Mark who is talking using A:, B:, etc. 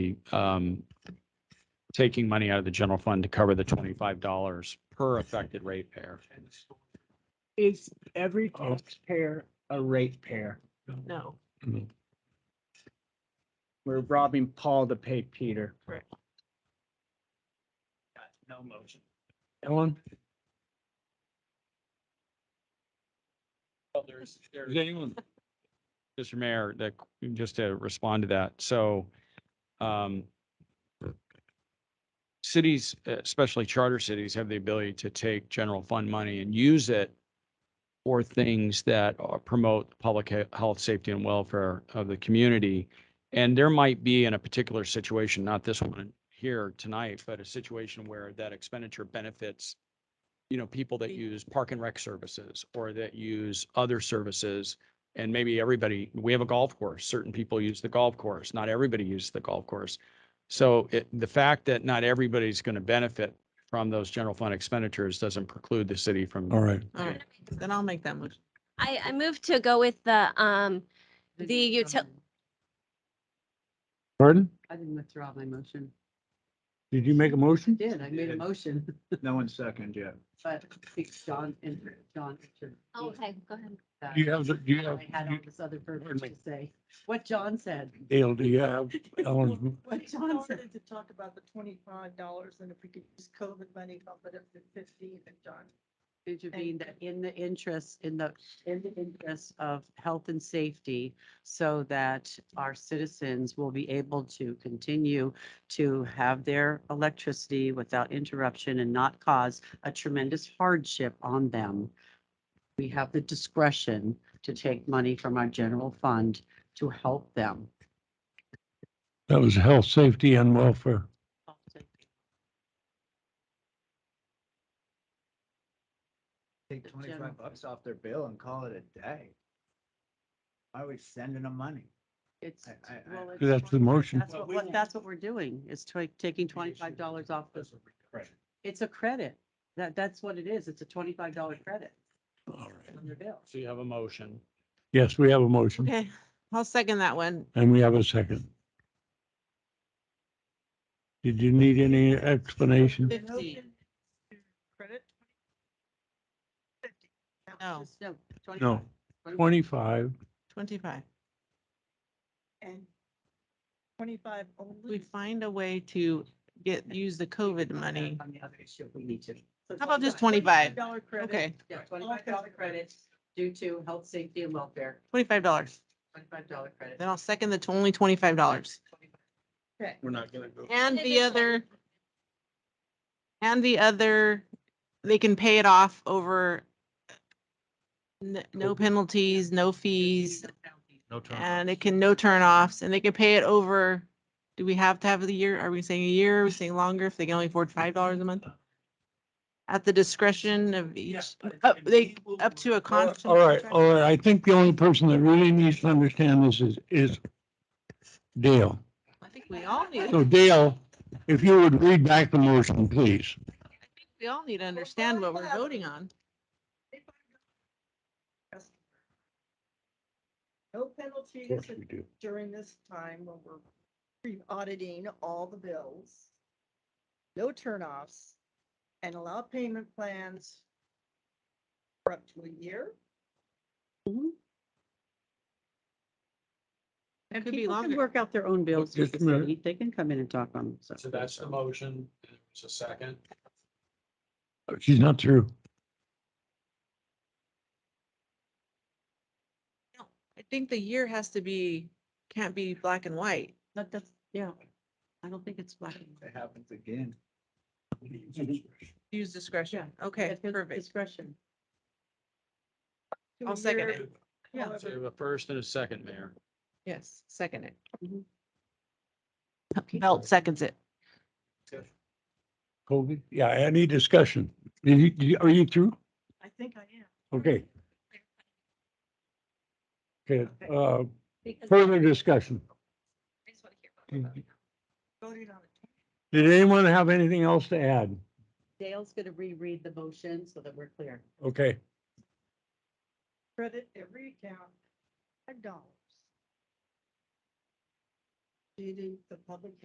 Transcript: A: the, um, taking money out of the general fund to cover the twenty-five dollars per affected ratepayer.
B: Is every
C: Oh.
B: taxpayer a ratepayer?
D: No,
B: We're robbing Paul to pay Peter.
D: Correct.
B: No motion. Ellen?
A: Does anyone? Mr. Mayor, that, just to respond to that, so, um, cities, especially charter cities, have the ability to take general fund money and use it for things that uh, promote public he- health, safety, and welfare of the community. And there might be in a particular situation, not this one here tonight, but a situation where that expenditure benefits, you know, people that use park and rec services or that use other services. And maybe everybody, we have a golf course. Certain people use the golf course. Not everybody uses the golf course. So it, the fact that not everybody's going to benefit from those general fund expenditures doesn't preclude the city from.
C: All right.
D: all right, then I'll make that motion.
E: I, I moved to go with the, um, the util,
C: Pardon?
F: I didn't withdraw my motion.
C: Did you make a
F: I
C: motion?
F: did, I made a motion,
B: No one second yet.
F: but I think John and John. should-
E: oh, okay, go ahead.
F: that-
C: Do you have, the- do you have,
F: I had all this other purpose to say, what John said.
C: Dale, do you have Ellen's?
F: What
G: We
F: John said.
G: wanted to talk about the twenty-five dollars and if we could use COVID money, bump it up to fifteen and John.
F: intervene that in the interest, in the, in the interest of health and safety so that our citizens will be able to continue to have their electricity without interruption and not cause a tremendous hardship on them. We have the discretion to take money from our general fund to help them.
C: That was health, safety and welfare.
B: Take
F: general-
B: twenty-five bucks off their bill and call it a day. Why are we sending them money?
F: It's.
B: I- I-
F: well,
B: I-
F: it's-
C: That's the motion.
F: That's what, that's what we're doing, is ta- taking twenty-five dollars off the It's a credit. That, that's what it is. It's a twenty-five dollar credit
C: All right.
F: on your bill.
A: So you have a motion.
C: Yes, we have a motion
D: Okay, I'll second that one.
C: and we have a second. Did you need any explanation?
D: Fifteen.
G: Credit? Fifty. That was
D: No.
G: just-
F: No. 25.
C: No, twenty-five.
D: Twenty-five.
G: And twenty-five only.
D: We find a way to get, use the COVID money.
F: On the other issue, we need to.
G: So
D: How about just
G: $25
D: $25?
G: Dollar credit.
D: Okay,
F: Yeah, twenty-five dollar credit due to health, safety and welfare,
D: twenty-five dollars.
F: twenty-five dollar credit.
D: Then I'll second the t- only twenty-five dollars.
G: Okay.
A: We're not going to go.
D: And
E: And
D: the
E: this
D: other, and the other, they can pay it off over n- no penalties, no fees,
A: No time.
D: and it can, no turn offs, and they can pay it over. Do we have to have the year? Are we saying a year? Are we saying longer if they can only afford five dollars a month? At the discretion of each, up, they, up to a
C: All
D: constant.
C: right, all right. I think the only person that really needs to understand this is, is Dale.
D: I think we all need, I
C: So Dale, if you would read back the motion, please.
D: think we all need to understand what we're voting on.
G: No penalties during this time when we're re-auditing all the bills. No turnoffs and allow payment plans for up to a year.
D: It could be
F: People can
D: longer.
F: work out their own bills. with
C: Just a
F: the
C: minute.
F: city. They can come in and talk on. them,
A: So that's the motion. It's a second.
C: Uh, She's not through.
D: I think the year has to be, can't be black and white.
F: That, that's, yeah. I don't think it's black. and white.
B: It happens again.
D: Use discretion. Okay,
F: It's
D: perfect.
F: Discretion.
G: to
D: I'll
G: a
D: second
G: year,
D: it.
F: Yeah.
G: however-
A: So you have a first and a second, Mayor.
D: Yes, second it.
F: Okay.
D: Mm-hmm. Belt seconds it.
C: COVID? Yeah, any discussion? Did you- did you- Are you through?
G: I think I am.
C: Okay. Okay,
G: Okay.
C: uh,
E: because
C: further discussion.
E: I just wanna hear
C: Mm-hmm.
E: about it.
G: Voted on it.
C: Did anyone have anything else to add?
F: Dale's gonna reread the motion so that we're clear.
C: Okay,
G: Credit every account five dollars. Leading the public